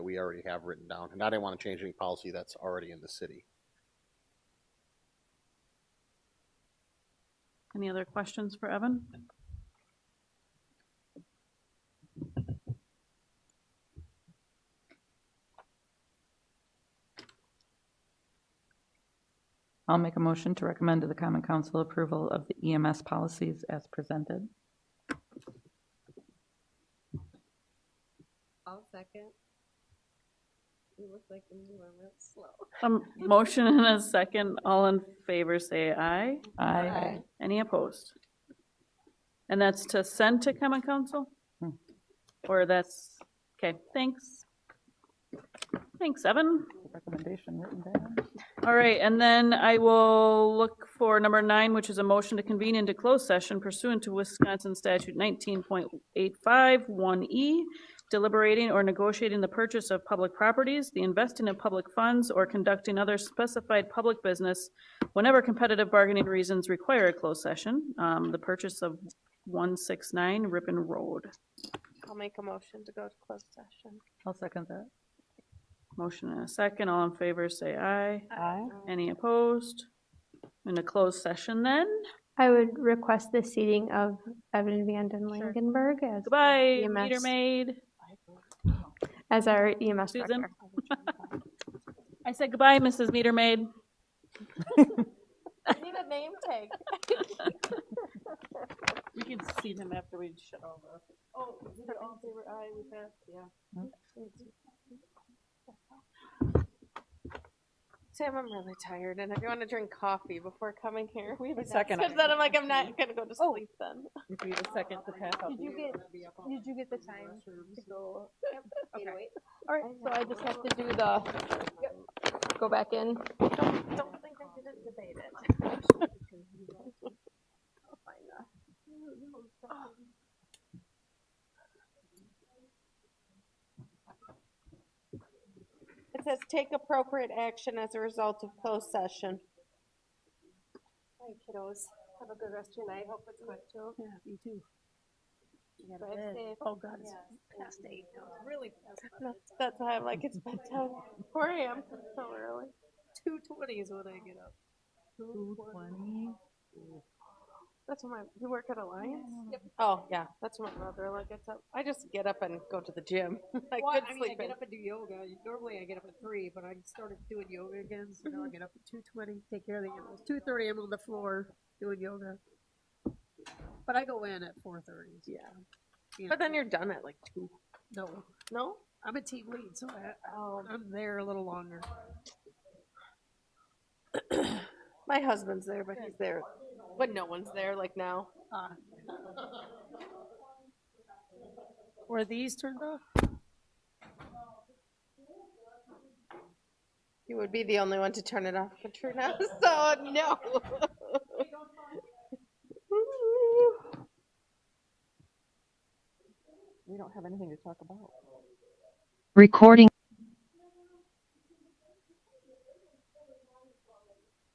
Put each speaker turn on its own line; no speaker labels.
we already have written down, and I didn't want to change any policy that's already in the city.
Any other questions for Evan? I'll make a motion to recommend to the Common Council approval of the EMS policies as presented.
I'll second. You look like you were real slow.
Um, motion and a second, all in favor, say aye.
Aye.
Any opposed? And that's to send to common council?
Hmm.
Or that's, okay, thanks. Thanks, Evan.
Recommendation written down.
All right, and then I will look for number nine, which is a motion to convene into closed session pursuant to Wisconsin statute nineteen point eight five one E, deliberating or negotiating the purchase of public properties, the investing of public funds, or conducting other specified public business whenever competitive bargaining reasons require a closed session, um, the purchase of one six nine Ripon Road.
I'll make a motion to go to closed session.
I'll second that.
Motion and a second, all in favor, say aye.
Aye.
Any opposed? In a closed session then?
I would request the seating of Evan Vanden Langenberg as,
Goodbye,
EMS.
meter maid.
as our EMS
Susan?
director.
I said goodbye, Mrs. Meter Maid.
I need a name tag.
We can see them after we shut all the. Oh, we did all favor aye, we passed, yeah.
Hmm.
Sam, I'm really tired and if you want to drink coffee before coming here, we have a
second
Because
item.
then I'm like, I'm not gonna go to
Oh.
sleep then.
If you the second to pass out.
you get, did you get the time to go? All right, so I just have to do the, go back in.
Don't, don't think I didn't debate it. I'll find that. It says take appropriate action as a result of closed session. All right, kiddos, have a good rest of your night, hope it's quick
Oh.
too. Yeah, you too. Drive safe. Oh, God, it's past eight, really past. That's why I'm like, it's bedtime, four AM, so early. Two twenty is when I get up.
Two twenty.
That's when my, you work at Alliance? Oh, yeah, that's what my mother like gets up. I just get up and go to the gym. I
Well,
could
I mean, I
sleep in.
get up and do yoga. Normally I get up at three, but I started doing yoga again, so now I get up at two twenty, take care of the animals. Two thirty, I'm on the floor doing yoga. But I go in at four thirty. Yeah.
But then you're done at like two.
No,
No?
I'm a team lead, so I,
Oh,
I'm there a little longer.
my husband's there, but he's there when no one's there, like now.
Uh, Were these turned off?
You would be the only one to turn it off, Katrina, so no.
We don't have anything to talk about.
Recording